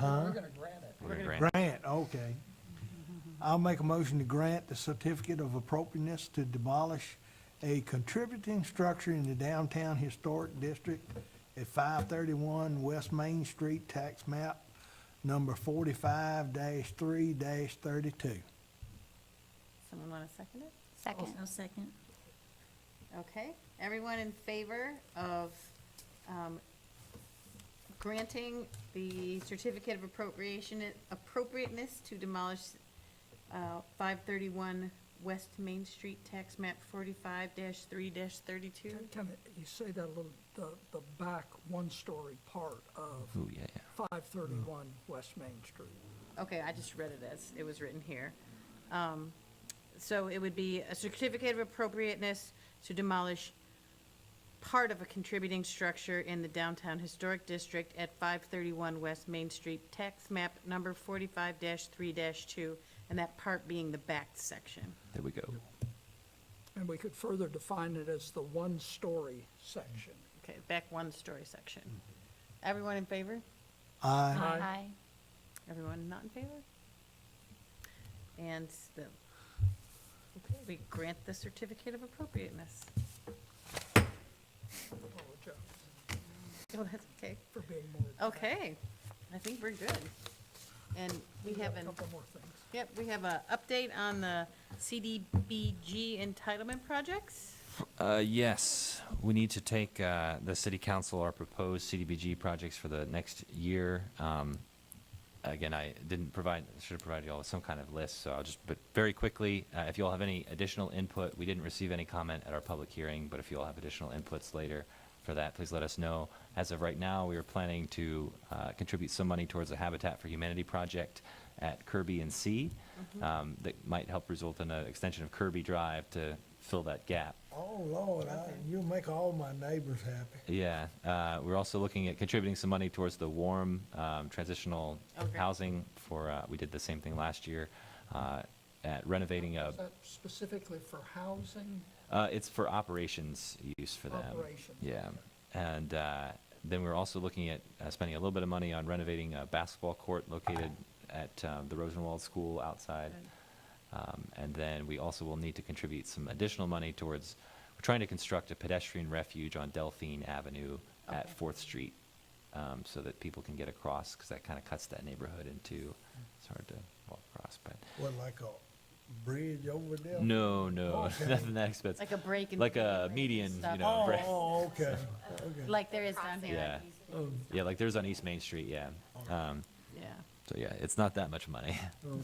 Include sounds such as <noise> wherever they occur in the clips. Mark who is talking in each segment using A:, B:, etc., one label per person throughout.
A: We're gonna grant it.
B: We're gonna grant.
C: Grant, okay. I'll make a motion to grant the certificate of appropriateness to demolish a contributing structure in the downtown historic district at five thirty-one West Main Street, tax map number forty-five three thirty-two.
D: Someone want to second it?
E: Second.
F: I'll second.
D: Okay, everyone in favor of um, granting the certificate of appropriation, appropriateness to demolish uh, 531 West Main Street, tax map 45-3-32?
A: Can you say that little, the, the back one-story part of
B: Ooh, yeah, yeah.
A: five thirty-one West Main Street?
D: Okay, I just read it as it was written here. Um, So it would be a certificate of appropriateness to demolish part of a contributing structure in the downtown historic district at 531 West Main Street, tax map number 45-3-2, and that part being the back section.
B: There we go.
A: And we could further define it as the one-story section.
D: Okay, back one-story section. Everyone in favor?
C: Aye.
A: Aye.
D: Everyone not in favor? And the, okay, we grant the certificate of appropriateness.
A: Apologize
D: Oh, that's okay.
A: for being more.
D: Okay, I think we're good. And we
A: got
D: have
A: A
D: an,
A: couple more things.
D: yep, we have a update on the CDBG entitlement projects.
B: Uh, yes, we need to take, uh, the city council, our proposed CDBG projects for the next year. Um, again, I didn't provide, should have provided you all with some kind of list, so I'll just, but very quickly, uh, if you all have any additional input, we didn't receive any comment at our public hearing, but if you all have additional inputs later for that, please let us know. As of right now, we are planning to, uh, contribute some money towards a Habitat for Humanity project at Kirby and C. Um, that might help result in an extension of Kirby Drive to fill that gap.
C: Oh, Lord, I, you'll make all my neighbors happy.
B: Yeah, uh, we're also looking at contributing some money towards the warm um, transitional
D: Oh, great.
B: housing for, uh, we did the same thing last year, uh, at renovating a,
A: Is that specifically for housing?
B: uh, it's for operations use for them.
A: Operations,
B: Yeah, and uh, then we're also looking at uh, spending a little bit of money on renovating a basketball court located at um, the Rosenwald School outside. Um, And then we also will need to contribute some additional money towards, we're trying to construct a pedestrian refuge on Delphine Avenue at
D: Okay.
B: Fourth Street, um, so that people can get across, because that kind of cuts that neighborhood into, it's hard to walk across, but,
C: What, like a bridge over there?
B: no, no,
C: Okay.
B: <laughs> nothing that expensive.
D: Oh, Like a break in.
B: Like a
D: between
B: median,
D: stuff.
B: you know,
C: Oh,
B: right.
C: oh, okay, okay.
D: Like there is down here.
B: Yeah.
C: Oh,
B: Yeah, like there's on East Main Street, yeah. Um,
D: Yeah.
B: So yeah, it's not that much money.
C: oh.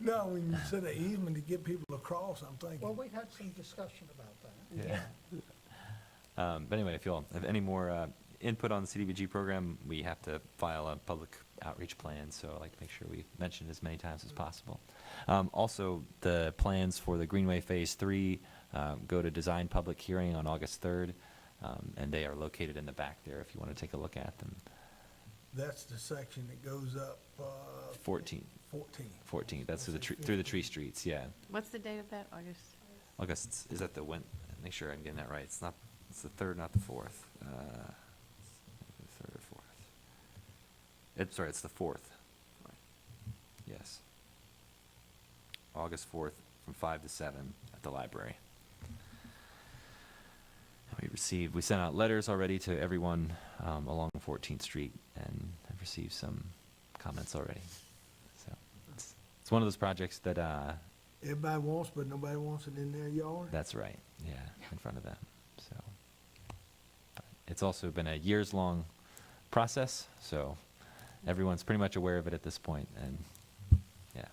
C: No, when you said the easement to get people across, I'm thinking,
A: Well, we had some discussion about that.
B: Yeah. <laughs> Um, But anyway, if you all have any more uh, input on the CDBG program, we have to file a public outreach plan, so I like to make sure we mention it as many times as possible. Um, Also, the plans for the Greenway Phase Three um, go to design public hearing on August third, um, and they are located in the back there if you want to take a look at them.
C: that's the section that goes up, uh,
B: Fourteen,
C: fourteen.
B: fourteen, that's through the tree, through the tree streets, yeah.
D: What's the date of that, August?
B: August, is that the Wed, make sure I'm getting that right, it's not, it's the third, not the fourth. Uh, the Third or fourth. It's, sorry, it's the fourth. Yes. August fourth, from five to seven at the library. And We received, we sent out letters already to everyone, um, along Fourteenth Street and have received some comments already. So, it's, it's one of those projects that, uh,
C: Everybody wants, but nobody wants it in their yard?
B: that's right. Yeah, in front of them. So it's also been a years long process. So everyone's pretty much aware of it at this point, and yeah.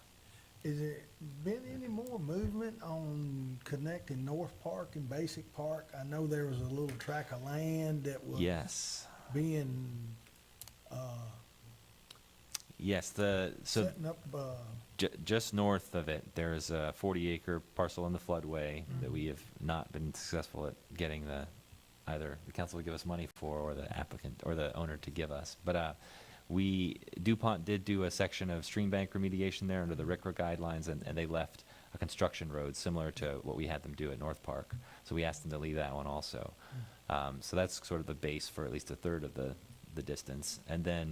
C: Is it been any more movement on connecting North Park and Basic Park? I know there was a little tract of land that was
B: Yes.
C: being, uh,
B: Yes. The so
C: setting up, uh,
B: j- just north of it, there is a 40 acre parcel in the floodway that we have not been successful at getting the either the council to give us money for or the applicant or the owner to give us. But uh, we DuPont did do a section of stream bank remediation there under the RICRA guidelines, and, and they left a construction road similar to what we had them do at North Park. So we asked them to leave that one also. Um, so that's sort of the base for at least a third of the the distance, and then